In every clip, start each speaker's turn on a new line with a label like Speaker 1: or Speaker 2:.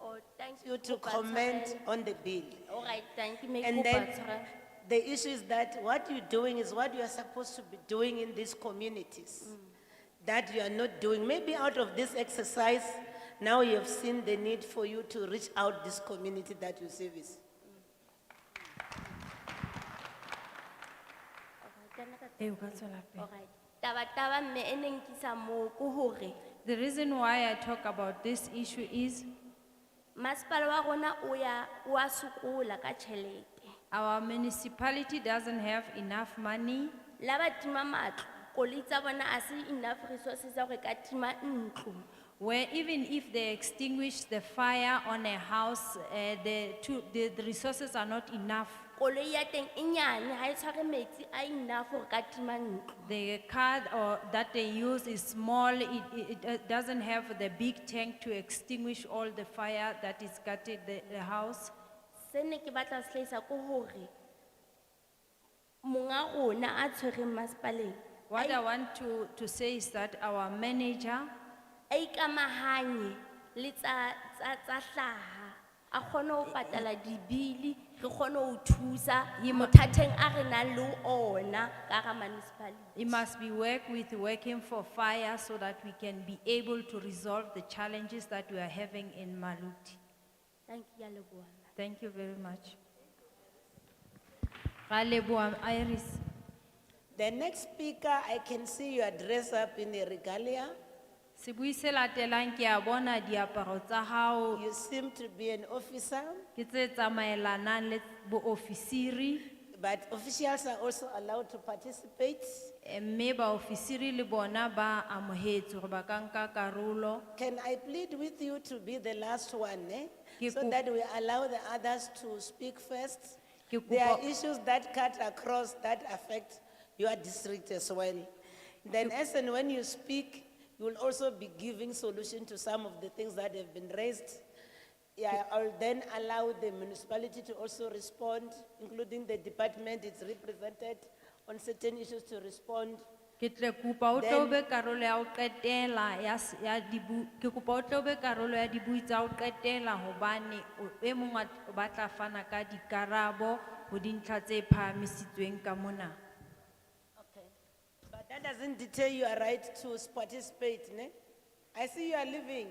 Speaker 1: Oh, thank
Speaker 2: you to
Speaker 1: Kopa
Speaker 2: comment
Speaker 1: tshwarelo.
Speaker 2: on the bill.
Speaker 1: All right, thank you, me
Speaker 2: And
Speaker 1: kopa
Speaker 2: then
Speaker 1: tshwarelo.
Speaker 2: the issue is that what you're doing is what you are supposed to be doing in these communities that you are not doing. Maybe out of this exercise, now you have seen the need for you to reach out this community that you service.
Speaker 3: Ee, o ka Eh, tswela pele.
Speaker 1: All right. e Taba taba me enenkisa mo kuhore.
Speaker 3: The reason why I talk about this issue is
Speaker 1: Maspala wa rona oya, oa sukula ka chelete.
Speaker 3: our municipality doesn't have enough money.
Speaker 1: Laba tima matlo, kolitza bona asi enough resources ya hore ka tima ntlo.
Speaker 3: Where even if they extinguish the fire on a house, eh, the two, the the resources are not enough.
Speaker 1: Koloi ya teng e nyane ha e tshware metsi a enough hore ka tima ntlo.
Speaker 3: The car or that they use is small, it, it, it doesn't have the big tank to extinguish all the fire that is gutted the, the house.
Speaker 1: Sene ki batla slaisa kuhore. Monga rona a tshwere maspaleng.
Speaker 3: What I want to, to say is that our manager
Speaker 1: a ikamahanye le tsa tsa tsa hlaha a kgone ho patala dibili re kgone ho thusa
Speaker 3: Ye mo-
Speaker 1: mothatheng a re nang le ona ka hara municipality
Speaker 3: It must be work with working for fire so that we can be able to resolve the challenges that we are having in Maluti.
Speaker 1: thank you ya leboha
Speaker 3: Thank you very much. Ra leboha, Iris.
Speaker 2: The next speaker, I can see you are dressed up in a regalia.
Speaker 3: Sebui se latelang ke a bona diaparo tsa hao
Speaker 2: You seem to be an officer,
Speaker 3: ke tse tsamaelanang le boofisiri
Speaker 2: but officials are also allowed to participate.
Speaker 3: eh, mme baofisiri le bona ba amohetswe hore ba ka nka karolo.
Speaker 2: Can I plead with you to be the last one, eh?
Speaker 3: Ke
Speaker 2: So
Speaker 3: kop-
Speaker 2: that we allow the others to speak first.
Speaker 3: Ke
Speaker 2: There are
Speaker 3: kopa-
Speaker 2: issues that cut across that affect your district as well. Then as and when you speak, you will also be giving solution to some of the things that have been raised. Yeah, I'll then allow the municipality to also respond, including the department it's represented on certain issues to respond.
Speaker 3: Ke tle kopa o tlo
Speaker 2: Then-
Speaker 3: be karolo ya ho qetela ya s- ya dibu, ke kopa o tlo be karolo ya dibui tsa ho qetela hobane o- e mong a t- o batla fana ka dikarabo ho dintlha tse phahamisitsweng ka mona.
Speaker 2: But that doesn't deter your right to participate, ne? I see you are leaving.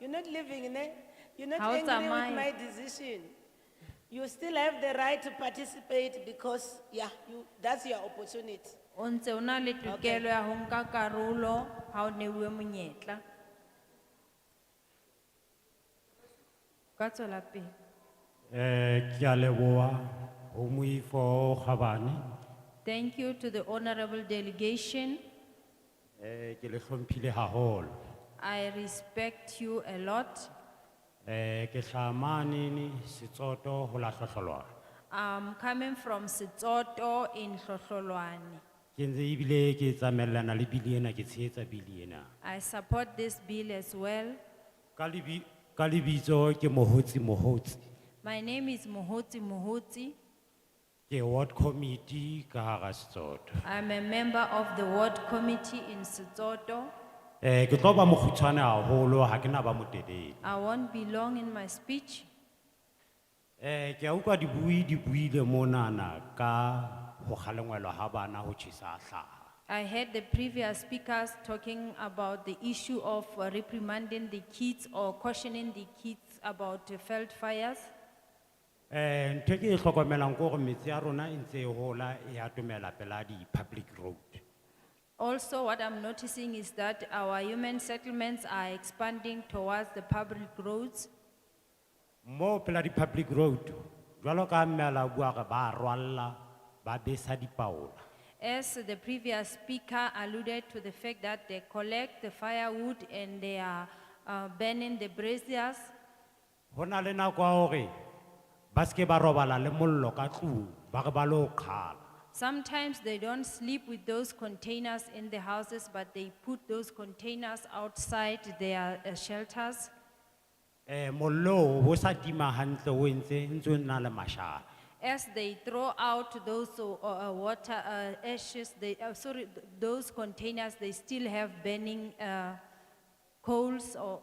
Speaker 2: You're not leaving, ne? You're not
Speaker 3: How
Speaker 2: angry
Speaker 3: am I?
Speaker 2: with my decision. You still have the right to participate because, yeah, you, that's your opportunity.
Speaker 3: O ntse o na le tokelo ya ho nka karolo ha o neuwe monyetla. Ka tswela pele.
Speaker 4: Eh, kia leboa, homuifo Khabane,
Speaker 3: Thank you to the honorable delegation.
Speaker 4: eh, ke le hlompile haholo.
Speaker 3: I respect you a lot.
Speaker 4: Eh, ke shamanini, sitsoto, hola shosholoa.
Speaker 3: I'm coming from Setoto in Shosholoane.
Speaker 4: Ke ntse ebile ke tsamaellana le bili ena, ke tshehetsa bili ena.
Speaker 3: I support this bill as well.
Speaker 4: Ka lebi- ka lebitso ke mohotsi mohotsi.
Speaker 3: My name is Muhuti Muhuti.
Speaker 4: Ke ward committee ka hara Setsotho.
Speaker 3: I'm a member of the ward committee in Setoto.
Speaker 4: Eh, ke tlo ba mokgutshwane haholo, ha ke na ba motelele.
Speaker 3: I won't be long in my speech.
Speaker 4: Eh, ke a utlwa dibui di buile monana ka ho kgalengwelwa ha bana ho tjhesa ha hlaha.
Speaker 3: I heard the previous speakers talking about the issue of uh, reprimanding the kids or cautioning the kids about uh, failed fires.
Speaker 4: Eh, ntho e ke e hlokomelang ke hore metsi ya rona e ntse e hola e atomela pela di-public road.
Speaker 3: Also, what I'm noticing is that our human settlements are expanding towards the public roads.
Speaker 4: Mo pela di-public road, jwalo ka mmela o bua re ba rwalla, ba besa dipaola.
Speaker 3: As the previous speaker alluded to the fact that they collect the firewood and they are uh, burning the braziers,
Speaker 4: Ho na le nako ya hore ba ske ba robala le mollo ka tlung, ba re ba lo qhala.
Speaker 3: sometimes they don't sleep with those containers in the houses, but they put those containers outside their uh, shelters.
Speaker 4: Eh, mollo o sa tima hantle o ntse, ntse o na le mashala.
Speaker 3: As they throw out those uh, uh, water uh, ashes, they, uh, sorry, th- those containers, they still have burning uh, coals or